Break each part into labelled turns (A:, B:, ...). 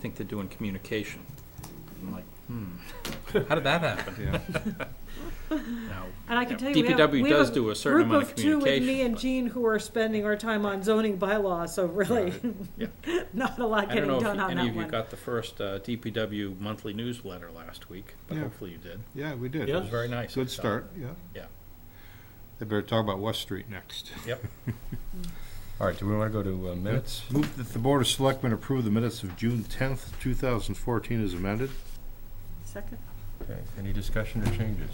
A: think they're doing communication. I'm like, hmm, how did that happen?
B: Yeah.
A: Now,
C: And I can tell you, we have.
A: DPW
C: we have
A: does
C: a
A: do a certain amount of
C: Group of two with me
A: communication.
C: and
A: but
C: Jean who are spending our time on zoning bylaw, so really,
A: Yeah.
C: not a lot
A: I don't
C: getting
A: know
C: done
A: if
C: on
A: any
C: that
A: of you
C: one.
A: got the first uh, DPW monthly newsletter last week, but
B: Yeah.
A: hopefully you did.
B: Yeah, we did.
A: It was very nice. I
B: Good
A: thought.
B: start, yeah.
A: Yeah.
B: They better talk about West Street next.
A: Yep.
D: All right, do we want to go to uh, minutes?
B: Move that the Board of Selectmen approve the minutes of June tenth, two thousand fourteen as amended.
C: Second.
D: Okay, any discussion or changes?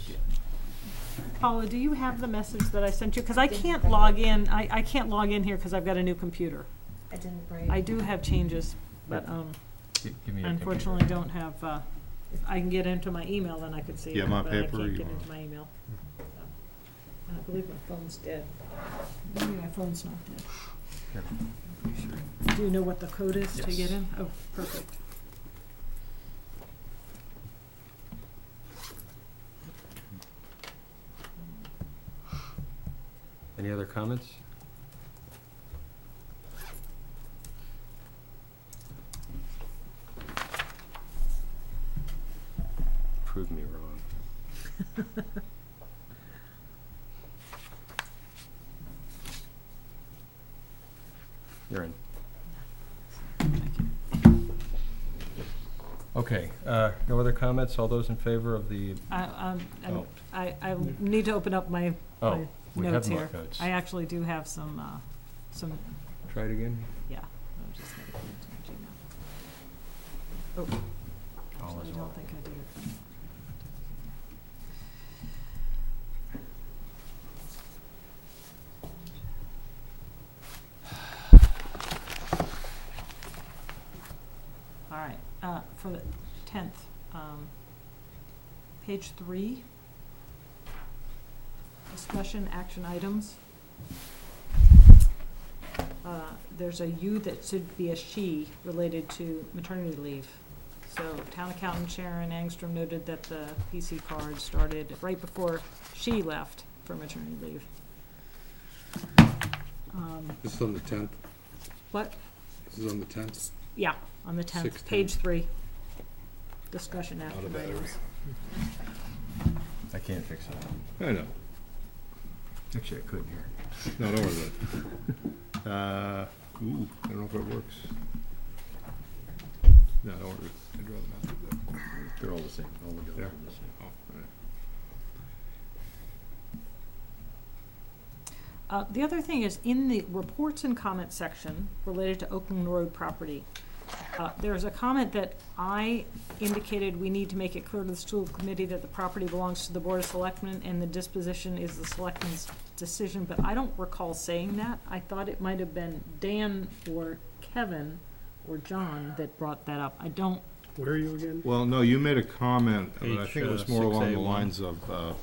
C: Paula, do you have the message that I sent you? Because I can't log in, I, I can't log in here because I've got a new computer.
E: I didn't bring.
C: I do have changes, but um,
D: Gi- Give me your computer.
C: unfortunately don't have, uh, if I can get into my email, then I could see
B: Yeah,
C: it,
B: my
C: but I
B: paper,
C: can't
B: you
C: get
B: want-
C: into my email. So, and I believe my phone's dead. Maybe my phone's not dead.
D: Here.
C: I'm pretty sure. Do you know what the code is to get
D: Yes.
C: in? Oh, perfect.
D: Any other comments? Prove me wrong. You're in. Okay, uh, no other comments? All those in favor of the,
C: I, um, I'm-
D: oh,
C: I, I need to open up my,
D: oh,
C: my
D: we have
C: notes
D: more
C: here.
D: votes.
C: I actually do have some, uh, some,
D: Try it again?
C: yeah. I'm just gonna put it in Gmail. Oh.
D: All
C: Actually,
D: is
C: I
D: well.
C: don't think I did it. All right, uh, for the tenth, um, page three. Discussion action items. Uh, there's a you that should be a she related to maternity leave. So town accountant Sharon Angstrom noted that the PC card started right before she left for maternity leave. Um,
F: This is on the tenth,
C: What,
F: this is on the tenth.
C: yeah, on the tenth,
F: Six
C: page three. Discussion after
F: a battery.
C: items.
D: I can't fix it.
B: I know,
D: Actually, I could here.
B: no, don't worry about it. Uh, ooh, I don't know if it works. No, don't worry, I'd rather not do that.
D: They're all the same, all the bills are
B: Yeah.
D: the same.
B: Oh, all right.
C: Uh, the other thing is, in the reports and comments section related to Oakland Road property, uh, there's a comment that I indicated we need to make it clear to the school committee that the property belongs to the Board of Selectmen and the disposition is the selectmen's decision, but I don't recall saying that. I thought it might have been Dan or Kevin or John that brought that up. I don't,
G: Where are you again?
B: Well, no, you made a comment, but I
A: Page,
B: think it was
A: uh,
B: more along the
A: 6A1.
B: lines of, uh,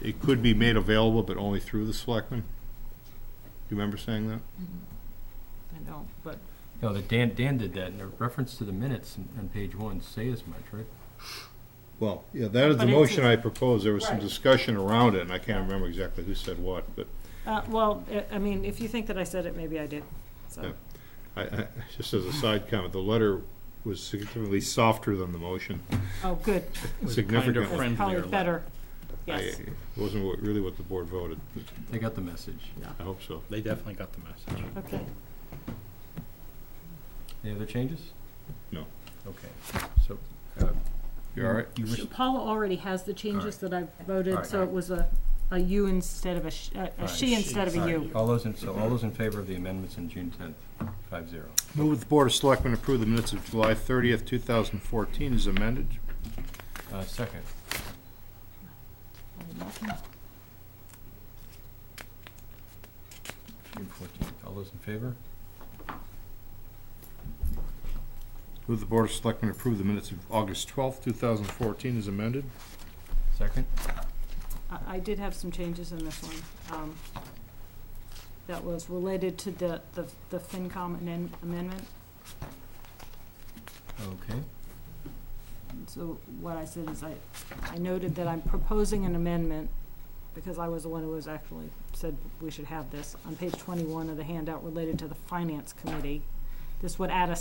B: it could be made available, but only through the selectmen. Do you remember saying that?
C: I don't, but
D: No, that Dan, Dan did that, in reference to the minutes on- on page one, say as much, right?
B: Well, yeah, that is the
C: But it's
B: motion
C: a-
B: I proposed. There was some
C: Right.
B: discussion around it, and I can't remember exactly who said what, but
C: Uh, well, I- I mean, if you think that I said it, maybe I did, so.
B: Yeah. I, I, just as a side comment, the letter was significantly softer than the motion,
C: Oh, good,
A: Was
B: significantly.
A: kinder,
C: that's probably
A: Friendlier letter.
C: better. Yes,
B: I- It wasn't what- really what the board voted.
D: They got the message.
B: I hope so.
A: They definitely got the message.
C: okay.
D: Any other changes?
B: No.
D: Okay, so. uh,
B: You all right?
D: You wish,
C: So Paula already has the changes that I
D: All
C: voted,
D: right.
C: so it was a, a you instead of a, sh- a- a
D: right,
C: she instead of a you.
D: all those in, so all those in favor of the amendments on June tenth, five zero.
B: Move that the Board of Selectmen approve the minutes of July thirtieth, two thousand fourteen as amended.
D: Uh, second, June fourteenth, all those in favor?
B: Move the Board of Selectmen approve the minutes of August twelfth, two thousand fourteen as amended.
D: Second,
C: I, I did have some changes in this one, um, that was related to the, the, the FinCom amen- amendment.
D: okay,
C: So what I said is I, I noted that I'm proposing an amendment, because I was the one who was actually said we should have this, on page twenty-one of the handout related to the Finance Committee. This would add a